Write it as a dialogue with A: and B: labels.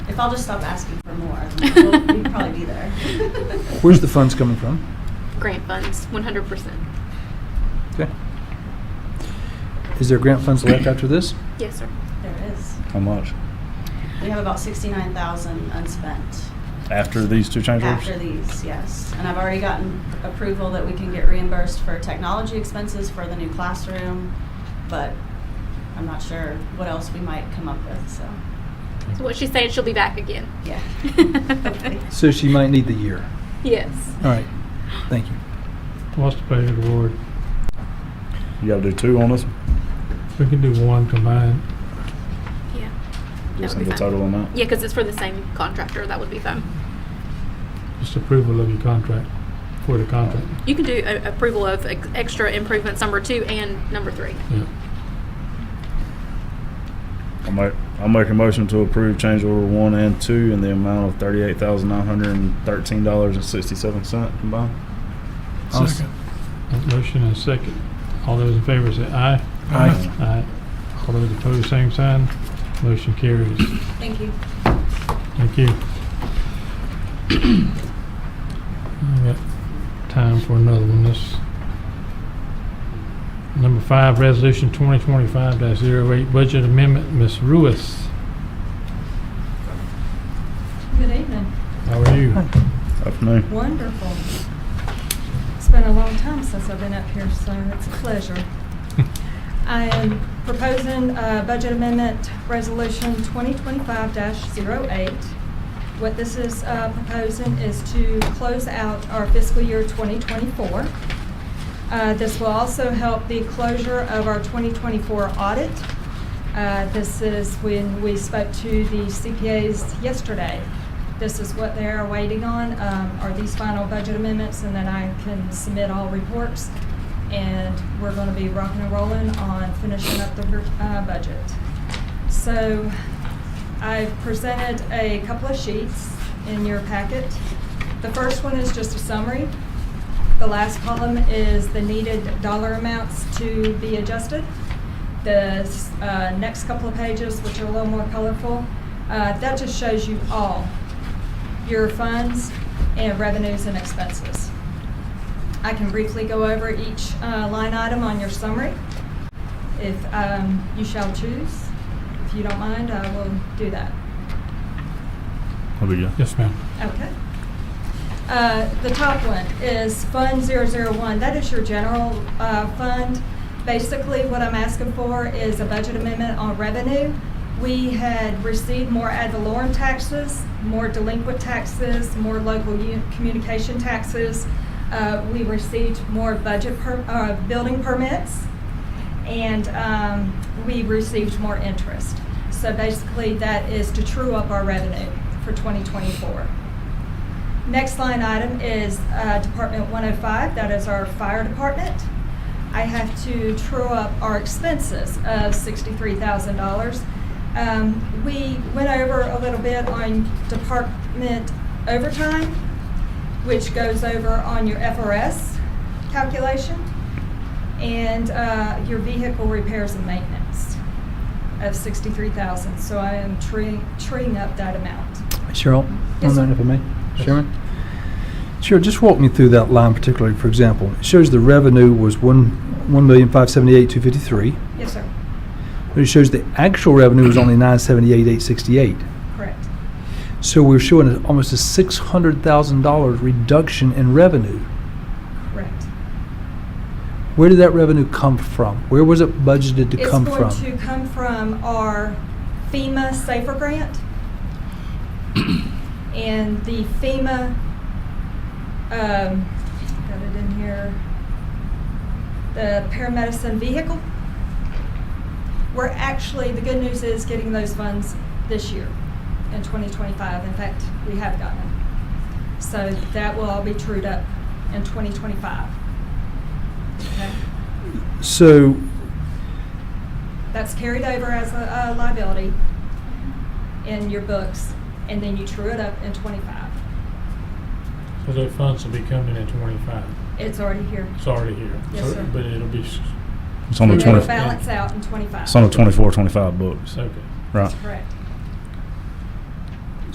A: I'll just stop asking for more. We'll, we'd probably be there.
B: Where's the funds coming from?
C: Grant funds, 100%.
B: Okay. Is there grant funds left after this?
C: Yes, sir.
A: There it is.
D: How much?
A: We have about sixty-nine thousand unspent
D: After these two change orders?
A: after these, yes. And I've already gotten approval that we can get reimbursed for technology expenses for the new classroom, but I'm not sure what else we might come up with, so,
C: So what she's saying, she'll be back again.
A: yeah.
B: So she might need the year.
C: yes.
B: All right, thank you.
E: What's the pleasure of the board?
D: You gotta do two on this, one?
E: We can do one combined.
C: Yeah. That
D: just
C: would be
D: the
C: fine.
D: total on that.
C: Yeah, because it's for the same contractor. That would be fun.
E: Just approval of your contract, for the contract.
C: You can do a- approval of ex- extra improvements number two and number three.
E: Yeah.
D: I'll make, I'll make a motion to approve change order one and two in the amount of thirty-eight thousand nine hundred and thirteen dollars and sixty-seven cent combined.
B: I'll s-
E: A Motion and a second. All those in favor say aye.
B: Aye.
E: Aye. All those opposed, same sign. Motion carries.
A: Thank you.
E: Thank you. I got time for another one. This, number five, resolution 2025-08, budget amendment. Ms. Ruiz,
F: Good evening.
E: how are you?
D: Afternoon.
F: Wonderful. It's been a long time since I've been up here, so it's a pleasure. I am proposing uh, Budget Amendment Resolution 2025-08. What this is uh, proposing is to close out our fiscal year 2024. Uh, This will also help the closure of our 2024 audit. Uh, This is when we spoke to the CPAs yesterday. This is what they're waiting on, um, are these final budget amendments, and then I can submit all reports and we're going to be rocking and rolling on finishing up the uh, budget. So I've presented a couple of sheets in your packet. The first one is just a summary. The last column is the needed dollar amounts to be adjusted. The uh, next couple of pages, which are a little more colorful, uh, that just shows you all your funds and revenues and expenses. I can briefly go over each uh, line item on your summary. If um, you shall choose, if you don't mind, I will do that.
D: I'll be good.
E: Yes, ma'am.
F: Okay. Uh, The top one is Fund 001. That is your general uh, fund. Basically, what I'm asking for is a budget amendment on revenue. We had received more ad valorem taxes, more delinquent taxes, more local u- communication taxes. Uh, We received more budget, per- uh, building permits and um, we received more interest. So basically, that is to true up our revenue for 2024. Next line item is uh, Department 105, that is our fire department. I have to true up our expenses of $63,000. Um, We went over a little bit on department overtime, which goes over on your FRS calculation and uh, your vehicle repairs and maintenance of sixty-three thousand. So I am treeing, treeing up that amount.
B: Cheryl,
F: Yes,
B: on
F: sir.
B: that if I may, Chairman? Cheryl, just walk me through that line particularly, for example. It shows the revenue was one, one million five seventy-eight, two fifty-three,
F: Yes, sir.
B: but it shows the actual revenue was only nine seventy-eight, eight sixty-eight.
F: Corect.
B: So we're showing a- almost a six hundred thousand dollars reduction in revenue.
F: Correct.
B: Where did that revenue come from? Where was it budgeted to come
F: It's going
B: from?
F: to come from our FEMA Safer Grant. And the FEMA, um, got it in here, the paramedicine vehicle. We're actually, the good news is getting those funds this year in 2025. In fact, we have gotten them. So that will all be trued up in 2025. Okay?
B: So
F: That's carried over as a, a liability in your books, and then you true it up in twenty-five.
E: So those funds will be coming in twenty-five.
F: It's already here.
E: It's already here.
F: Yes,
E: So-
F: sir.
E: But it'll be, s-
D: It's on the
F: It'll
D: twenty,
F: balance out in twenty-five.
D: it's on the twenty-four, twenty-five
E: it's
D: books,
E: okay.
D: right?
F: Correct.